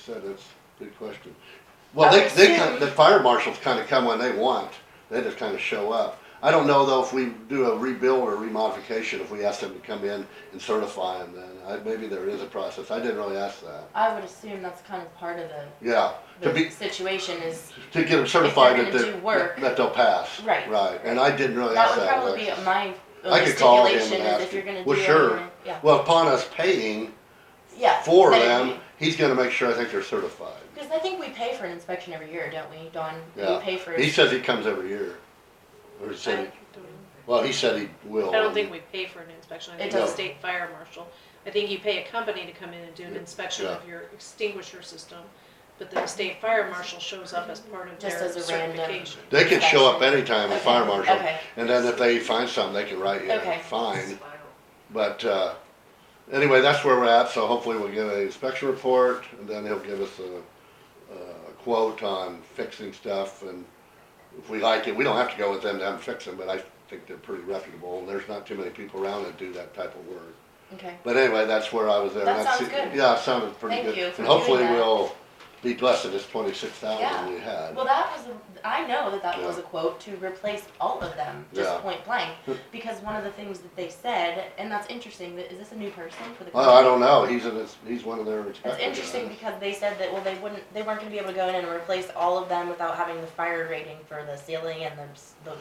said, that's a good question. Well, they, they, assume- kind- the fire marshals kinda come when they want, they just kinda show up. I don't know though if we do a rebuild or remodification, if we ask them to come in and certify them then, I, maybe there is a process, I didn't really ask that. I would assume that's kind of part of the, Yeah, to the be, situation is, to get them certified gonna that do they're, work- that they'll pass. Right. Right, and I didn't really that ask would that. probably be Alexis. my I only could call him and stipulation is ask if you're gonna him. do Well, it, sure, then- yeah, well, upon us paying yeah. for But if them, we- he's gonna make sure I think they're certified. Cause I think we pay for an inspection every year, don't we, Don? Yeah. We pay for. He says he comes every year. Or he said, he- well, he said he will. I don't think we pay for an inspection, I think It it's a does. state fire marshal. I think you pay a company to come in and do an inspection of your extinguisher system, but the state fire marshal shows up as part of Just their as a random- certification. They can show up anytime, a Okay, fire marshal, okay. and then if they find something, they can write you a Okay. fine. But, uh, anyway, that's where we're at, so hopefully we'll get an inspection report, and then he'll give us a, a quote on fixing stuff, and if we like it, we don't have to go with them to have them fix them, but I think they're pretty reputable, and there's not too many people around that do that type of work. Okay, But anyway, that's where I was there. That That's- sounds good. Yeah, it sounded pretty Thank good. you for and hopefully doing that. we'll be blessed with this twenty-six Yeah. thousand we had. well, that was, a- I know that that Yeah. was a quote to replace all of them, Yeah. just point blank. Because one of the things that they said, and that's interesting, that, is this a new person for the? Well, I company? don't know. He's in. His, he's one of their inspectors. It's interesting because they said that, well, they wouldn't, they weren't gonna be able to go in and replace all of them without having the fire rating for the ceiling and the, s- the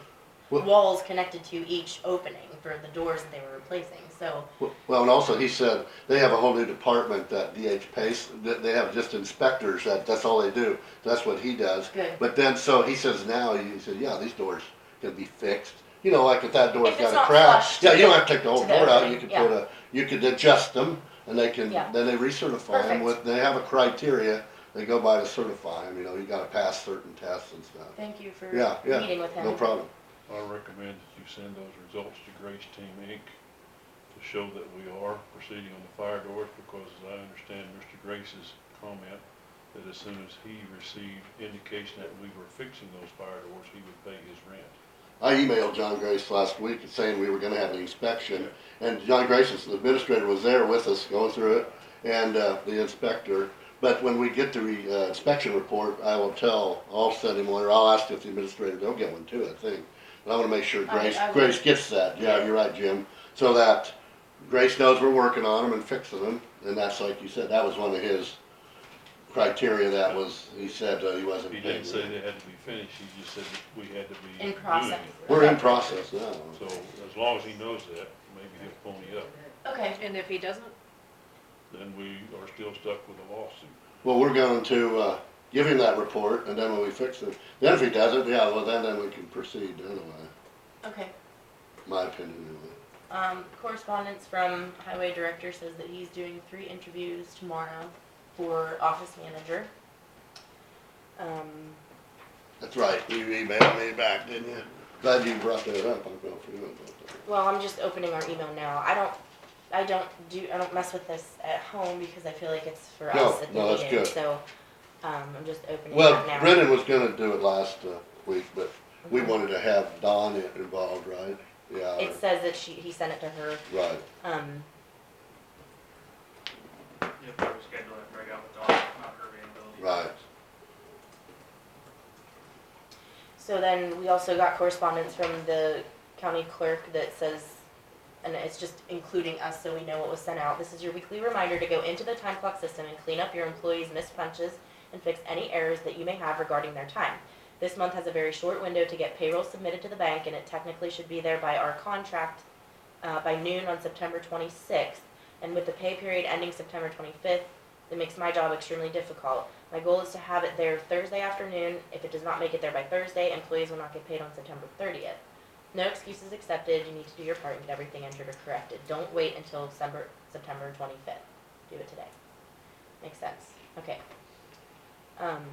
Well- walls connected to each opening for the doors that they were replacing, so, Well, and also he said they have a whole new department that DH Pace. That they have just inspectors. That that's all they do. That's what he does. Good. But then, so he says now he said, yeah, these doors can be fixed. You know, like if that door's If it's got a not crack, flush to yeah, you don't the- have to take the whole to the door out. opening, You could yeah. put a. You could adjust them, and they can. Yeah. Then they recertify them Perfect. with. They have a criteria. They go by to certify them. You know, you got to pass certain tests and stuff. thank you for Yeah, yeah. meeting with him. No problem. I recommend that you send those results to Grace Team Inc. to show that we are proceeding on the fire doors, because as I understand Mr. Grace's comment, that as soon as he received indication that we were fixing those fire doors, he would pay his rent. I emailed John Grace last week saying we were gonna have an inspection, and John Grace, as the administrator, was there with us going through it, and, uh, the inspector. But when we get the, re- uh, inspection report, I will tell, I'll send him one, or I'll ask if the administrator, they'll get one too, I think. But I wanna make sure I- Grace, I would- Grace gets that, yeah, you're right, Jim, so that Grace knows we're working on them and fixing them, and that's like you said, that was one of his criteria that was, he said, uh, he wasn't. He didn't paid. say they had to be finished, he just said that we had to be In doing process. it. We're in process now. So as long as he knows that, maybe he'll pony up, Okay, And if he doesn't, then we are still stuck with a lawsuit. Well, we're going to, uh, give him that report and then when we fix it, then if he doesn't, yeah, well, then, then we can proceed anyway, okay. my opinion anyway. Um, correspondence from highway director says that he's doing three interviews tomorrow for office manager. Um, That's right, you emailed me back, didn't you? Glad you brought that up, I felt for you about that. Well, I'm just opening our email now. I don't, I don't do, I don't mess with this at home because I feel like it's for No, us at the no, that's meeting, good. so, um, I'm just opening it Well, up now. Brendan was gonna do it last, uh, week, but we Okay. wanted to have Don i- involved, right? Yeah, It or- says that she, he sent it to her, right, um, Yep, we will schedule that breakout with Dawn, not her availability. Right. so then we also got correspondence from the county clerk that says, and it's just including us so we know what was sent out. This is your weekly reminder to go into the time clock system and clean up your employees' missed punches and fix any errors that you may have regarding their time. This month has a very short window to get payroll submitted to the bank, and it technically should be there by our contract uh, by noon on September 26th. And with the pay period ending September 25th, it makes my job extremely difficult. My goal is to have it there Thursday afternoon. If it does not make it there by Thursday, employees will not get paid on September 30th. No excuses accepted. You need to do your part and get everything entered or corrected. Don't wait until December, September 25th. Do it today. Makes sense. Okay. Um,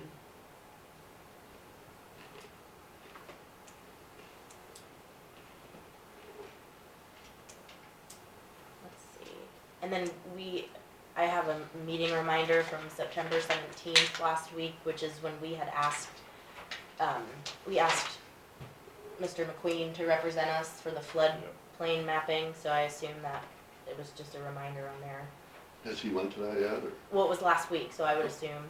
let's see. And then we, I have a meeting reminder from September seventeenth last week, which is when we had asked, um, we asked Mr. McQueen to represent us for the floodplain mapping, so I assume that it was just a reminder on there. Has he went to that yet, or? Well, it was last week, so I would assume.